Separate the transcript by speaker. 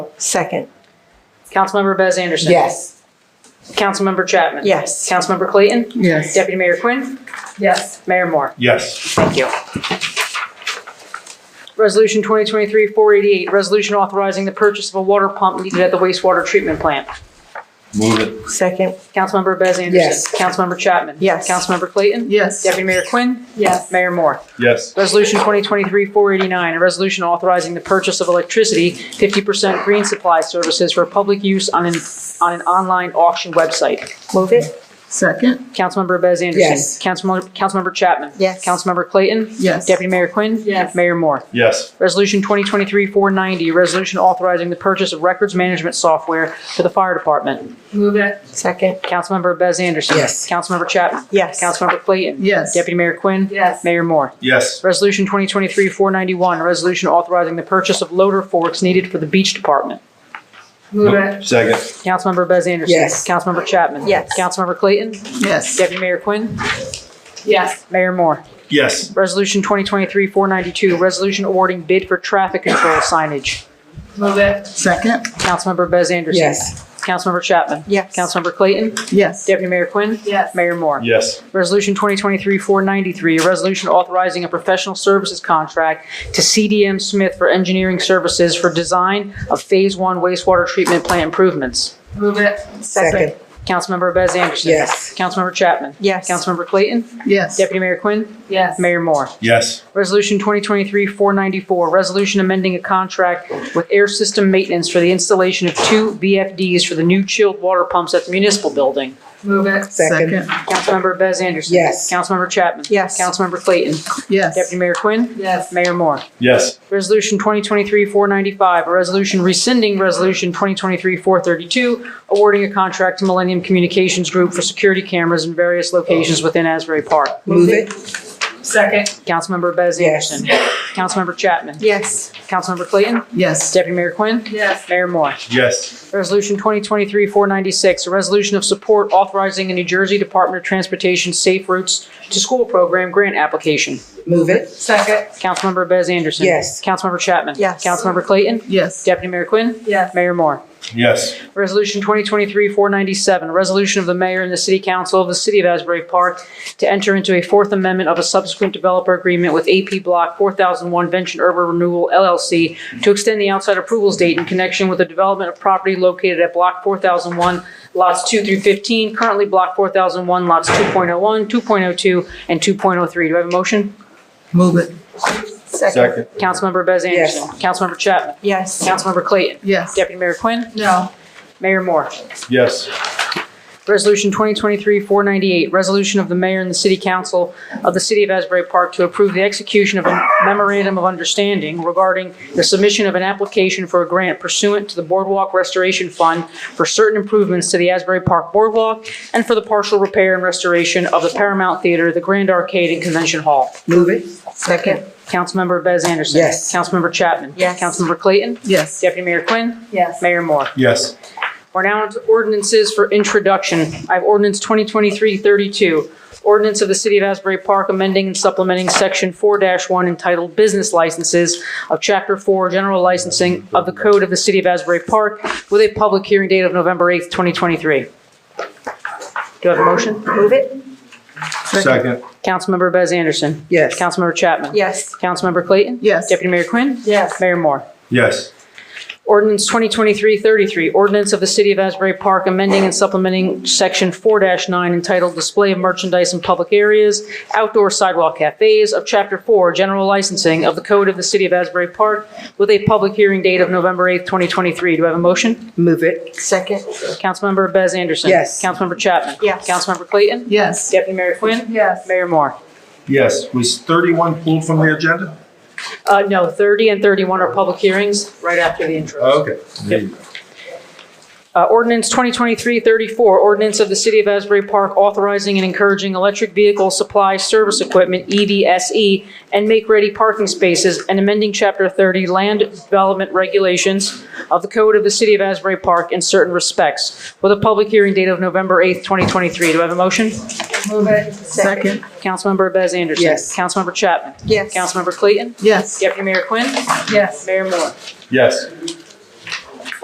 Speaker 1: Second.
Speaker 2: Councilmember Bez Anderson.
Speaker 3: Yes.
Speaker 2: Councilmember Chapman.
Speaker 1: Yes.
Speaker 2: Councilmember Clayton.
Speaker 3: Yes.
Speaker 2: Deputy Mayor Quinn.
Speaker 4: Yes.
Speaker 2: Mayor Moore.
Speaker 5: Yes.
Speaker 2: Thank you. Resolution 2023-488, resolution authorizing the purchase of a water pump needed at the wastewater treatment plant.
Speaker 5: Move it.
Speaker 1: Second.
Speaker 2: Councilmember Bez Anderson.
Speaker 3: Yes.
Speaker 2: Councilmember Chapman.
Speaker 1: Yes.
Speaker 2: Councilmember Clayton.
Speaker 3: Yes.
Speaker 2: Deputy Mayor Quinn.
Speaker 4: Yes.
Speaker 2: Mayor Moore.
Speaker 5: Yes.
Speaker 2: Resolution 2023-489, a resolution authorizing the purchase of electricity, 50% green supply services for public use on an, on an online auction website.
Speaker 1: Move it.
Speaker 3: Second.
Speaker 2: Councilmember Bez Anderson.
Speaker 3: Yes.
Speaker 2: Councilmember, Councilmember Chapman.
Speaker 1: Yes.
Speaker 2: Councilmember Clayton.
Speaker 3: Yes.
Speaker 2: Deputy Mayor Quinn.
Speaker 4: Yes.
Speaker 2: Mayor Moore.
Speaker 5: Yes.
Speaker 2: Resolution 2023-490, a resolution authorizing the purchase of records management software for the fire department.
Speaker 4: Move it.
Speaker 1: Second.
Speaker 2: Councilmember Bez Anderson.
Speaker 3: Yes.
Speaker 2: Councilmember Chapman.
Speaker 1: Yes.
Speaker 2: Councilmember Clayton.
Speaker 3: Yes.
Speaker 2: Deputy Mayor Quinn.
Speaker 4: Yes.
Speaker 2: Mayor Moore.
Speaker 5: Yes.
Speaker 2: Resolution 2023-491, a resolution authorizing the purchase of loader forks needed for the beach department.
Speaker 4: Move it.
Speaker 5: Second.
Speaker 2: Councilmember Bez Anderson.
Speaker 3: Yes.
Speaker 2: Councilmember Chapman.
Speaker 1: Yes.
Speaker 2: Councilmember Clayton.
Speaker 3: Yes.
Speaker 2: Deputy Mayor Quinn.
Speaker 4: Yes.
Speaker 2: Mayor Moore.
Speaker 5: Yes.
Speaker 2: Resolution 2023-492, resolution awarding bid for traffic control signage.
Speaker 4: Move it.
Speaker 3: Second.
Speaker 2: Councilmember Bez Anderson.
Speaker 3: Yes.
Speaker 2: Councilmember Chapman.
Speaker 1: Yes.
Speaker 2: Councilmember Clayton.
Speaker 3: Yes.
Speaker 2: Deputy Mayor Quinn.
Speaker 4: Yes.
Speaker 2: Mayor Moore.
Speaker 5: Yes.
Speaker 2: Resolution 2023-493, a resolution authorizing a professional services contract to CDM Smith for engineering services for design of Phase 1 wastewater treatment plant improvements.
Speaker 4: Move it.
Speaker 3: Second.
Speaker 2: Councilmember Bez Anderson.
Speaker 3: Yes.
Speaker 2: Councilmember Chapman.
Speaker 1: Yes.
Speaker 2: Councilmember Clayton.
Speaker 3: Yes.
Speaker 2: Deputy Mayor Quinn.
Speaker 4: Yes.
Speaker 2: Mayor Moore.
Speaker 5: Yes.
Speaker 2: Resolution 2023-494, resolution amending a contract with air system maintenance for the installation of two VFDs for the new chilled water pumps at the municipal building.
Speaker 4: Move it.
Speaker 3: Second.
Speaker 2: Councilmember Bez Anderson.
Speaker 3: Yes.
Speaker 2: Councilmember Chapman.
Speaker 1: Yes.
Speaker 2: Councilmember Clayton.
Speaker 3: Yes.
Speaker 2: Deputy Mayor Quinn.
Speaker 4: Yes.
Speaker 2: Mayor Moore.
Speaker 5: Yes.
Speaker 2: Resolution 2023-495, a resolution rescinding Resolution 2023-432, awarding a contract to Millennium Communications Group for security cameras in various locations within Asbury Park.
Speaker 3: Move it.
Speaker 4: Second.
Speaker 2: Councilmember Bez
Speaker 3: Yes.
Speaker 2: Anderson. Councilmember Chapman.
Speaker 1: Yes.
Speaker 2: Councilmember Clayton.
Speaker 3: Yes.
Speaker 2: Deputy Mayor Quinn.
Speaker 4: Yes.
Speaker 2: Mayor Moore.
Speaker 5: Yes.
Speaker 2: Resolution 2023-496, a resolution of support authorizing a New Jersey Department of Transportation Safe Routes to School Program grant application.
Speaker 3: Move it.
Speaker 4: Second.
Speaker 2: Councilmember Bez Anderson.
Speaker 3: Yes.
Speaker 2: Councilmember Chapman.
Speaker 1: Yes.
Speaker 2: Councilmember Clayton.
Speaker 3: Yes.
Speaker 2: Deputy Mayor Quinn.
Speaker 4: Yes.
Speaker 2: Mayor Moore.
Speaker 5: Yes.
Speaker 2: Resolution 2023-497, a resolution of the mayor and the city council of the city of Asbury Park to enter into a fourth amendment of a subsequent developer agreement with AP Block 4001 Venture Urban Renewal LLC to extend the outside approvals date in connection with the development of property located at Block 4001, lots 2 through 15, currently Block 4001, lots 2.01, 2.02, and 2.03. Do I have a motion?
Speaker 3: Move it.
Speaker 5: Second.
Speaker 2: Councilmember Bez Anderson. Councilmember Chapman.
Speaker 1: Yes.
Speaker 2: Councilmember Clayton.
Speaker 3: Yes.
Speaker 2: Deputy Mayor Quinn.
Speaker 4: No.
Speaker 2: Mayor Moore.
Speaker 5: Yes.
Speaker 2: Resolution 2023-498, resolution of the mayor and the city council of the city of Asbury Park to approve the execution of a memorandum of understanding regarding the submission of an application for a grant pursuant to the Boardwalk Restoration Fund for certain improvements to the Asbury Park Boardwalk and for the partial repair and restoration of the Paramount Theater, the Grand Arcade, and Convention Hall.
Speaker 3: Move it.
Speaker 1: Second.
Speaker 2: Councilmember Bez Anderson.
Speaker 3: Yes.
Speaker 2: Councilmember Chapman.
Speaker 1: Yes.
Speaker 2: Councilmember Clayton.
Speaker 3: Yes.
Speaker 2: Deputy Mayor Quinn.
Speaker 4: Yes.
Speaker 2: Mayor Moore.
Speaker 5: Yes.
Speaker 2: We're now into ordinances for introduction. I have ordinance 2023-32, ordinance of the City of Asbury Park amending and supplementing Section 4-1 entitled Business Licenses of Chapter 4 General Licensing of the Code of the City of Asbury Park with a public hearing date of November 8th, 2023. Do I have a motion?
Speaker 1: Move it.
Speaker 5: Second.
Speaker 2: Councilmember Bez Anderson.
Speaker 3: Yes.
Speaker 2: Councilmember Chapman.
Speaker 1: Yes.
Speaker 2: Councilmember Clayton.
Speaker 3: Yes.
Speaker 2: Deputy Mayor Quinn.
Speaker 4: Yes.
Speaker 2: Mayor Moore.
Speaker 5: Yes.
Speaker 2: Ordinance 2023-33, ordinance of the City of Asbury Park amending and supplementing Section 4-9 entitled Display of Merchandise in Public Areas, Outdoor Sidewalk Cafes of Chapter 4, General Licensing of the Code of the City of Asbury Park with a public hearing date of November 8th, 2023. Do I have a motion?
Speaker 3: Move it.
Speaker 1: Second.
Speaker 2: Councilmember Bez Anderson.
Speaker 3: Yes.
Speaker 2: Councilmember Chapman.
Speaker 1: Yes.
Speaker 2: Councilmember Clayton.
Speaker 3: Yes.
Speaker 2: Deputy Mayor Quinn.
Speaker 4: Yes.
Speaker 2: Mayor Moore.
Speaker 5: Yes. Was 31 pulled from the agenda?
Speaker 2: Uh, no, 30 and 31 are public hearings right after the intros.
Speaker 5: Okay. There you go.
Speaker 2: Uh, Ordinance 2023-34, ordinance of the City of Asbury Park authorizing and encouraging electric vehicle supply service equipment, E EVSE, and make-ready parking spaces, and amending Chapter 30 Land Development Regulations of the Code of the City of Asbury Park in certain respects, with a public hearing date of November 8th, 2023. Do I have a motion?
Speaker 4: Move it.
Speaker 3: Second.
Speaker 2: Councilmember Bez Anderson.
Speaker 3: Yes.
Speaker 2: Councilmember Chapman.
Speaker 1: Yes.
Speaker 2: Councilmember Clayton.
Speaker 3: Yes.
Speaker 2: Deputy Mayor Quinn.
Speaker 4: Yes.
Speaker 2: Mayor Moore.
Speaker 5: Yes.